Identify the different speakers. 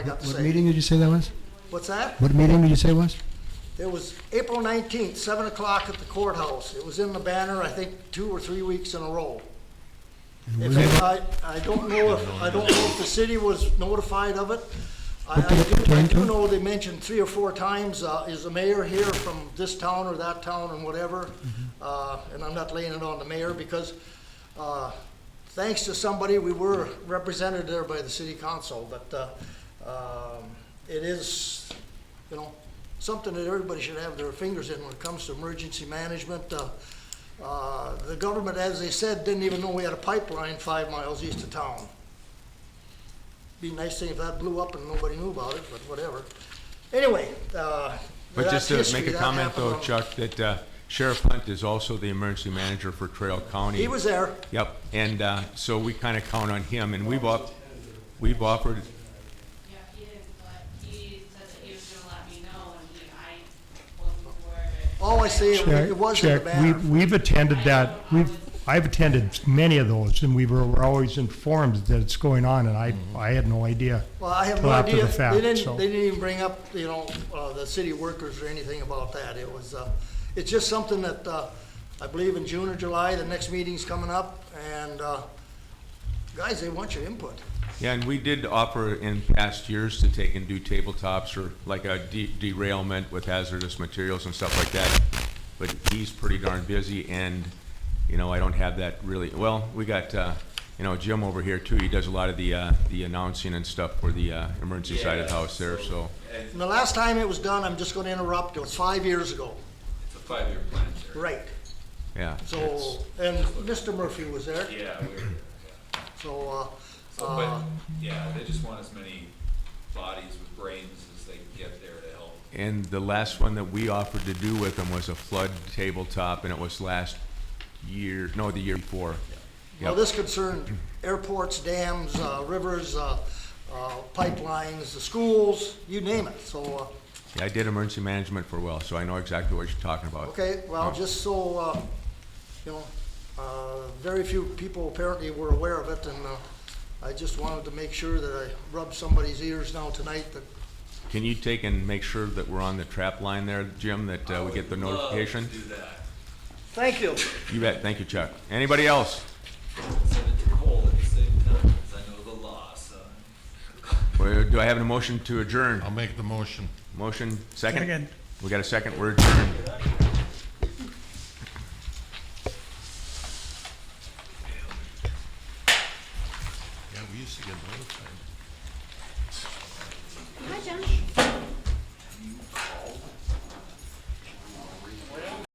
Speaker 1: I got to
Speaker 2: What
Speaker 1: say.
Speaker 2: meeting did you say that was?
Speaker 1: What's that?
Speaker 2: What meeting did you say it was?
Speaker 1: It was April 19th, 7 o'clock at the courthouse. It was in the banner, I think, two or three weeks in a row. If it- I, I don't know if, I don't know if the city was notified of it. I, I do- I do know they mentioned three or four times, uh, is the mayor here from this town or that town and whatever? Uh, and I'm not laying it on the mayor because, uh, thanks to somebody, we were represented there by the city council, but, uh, um, it is, you know, something that everybody should have their fingers in when it comes to emergency management. Uh, uh, The government, as they said, didn't even know we had a pipeline five miles east of town. Be a nice thing if that blew up and nobody knew about it, but whatever. Anyway, uh, that's
Speaker 3: But just to
Speaker 1: history.
Speaker 3: make a
Speaker 1: That
Speaker 3: comment
Speaker 1: happened
Speaker 3: though,
Speaker 1: on-
Speaker 3: Chuck, that uh, Sheriff Hunt is also the emergency manager for Trail County.
Speaker 1: He was there.
Speaker 3: Yep, and uh, so we kind of count on him, and we've op, we've offered,
Speaker 4: Yeah, he is, but he said that he was gonna let me know, and he, I wasn't aware of it.
Speaker 1: All I see, it it was in the
Speaker 5: Check, check.
Speaker 1: banner.
Speaker 5: We've, we've attended that, we've, I've attended many of those, and we were, were always informed that it's going on, and I, I had no idea.
Speaker 1: Well, I have
Speaker 5: till
Speaker 1: no
Speaker 5: after the
Speaker 1: idea.
Speaker 5: fact,
Speaker 1: They didn't,
Speaker 5: so.
Speaker 1: they didn't even bring up, you know, uh, the city workers or anything about that. It was, uh, it's just something that, uh, I believe in June or July, the next meeting's coming up, and, uh, guys, they want your input.
Speaker 3: yeah, and we did offer in past years to take and do tabletops or like a de- derailment with hazardous materials and stuff like that. But he's pretty darn busy, and, you know, I don't have that really, well, we got, uh, you know, Jim over here too, he does a lot of the, uh, the announcing and stuff for the uh, emergency side of the
Speaker 6: Yeah,
Speaker 3: house there, so.
Speaker 6: And
Speaker 1: And the last time it was done, I'm just gonna interrupt, it was five years ago.
Speaker 6: it's a five-year plan, sir.
Speaker 1: Right.
Speaker 3: Yeah.
Speaker 1: So,
Speaker 3: it's-
Speaker 1: and Mr. Murphy was there,
Speaker 6: Yeah, we're, yeah.
Speaker 1: so, uh,
Speaker 6: So, but,
Speaker 1: uh,
Speaker 6: yeah, they just want as many bodies with brains as they can get there to help.
Speaker 3: And the last one that we offered to do with them was a flood tabletop, and it was last year, no, the year before.
Speaker 1: well,
Speaker 3: Yep.
Speaker 1: this concerned airports, dams, uh, rivers, uh, uh, pipelines, the schools, you name it, so, uh,
Speaker 3: Yeah, I did emergency management for well, so I know exactly what you're talking about.
Speaker 1: uh, Okay, well,
Speaker 3: Oh.
Speaker 1: just so, uh, you know, uh, very few people apparently were aware of it, and uh, I just wanted to make sure that I rubbed somebody's ears now tonight that,
Speaker 3: Can you take and make sure that we're on the trap line there, Jim, that uh, we get the notification?
Speaker 6: Do that.
Speaker 1: thank you.
Speaker 3: You bet, thank you, Chuck. Anybody else?
Speaker 6: Send it to Cole at the same time, 'cause I know the law, son.
Speaker 3: Or Do I have a motion to adjourn?
Speaker 7: I'll make the motion.
Speaker 3: Motion, second? We got a second, we're adjourned.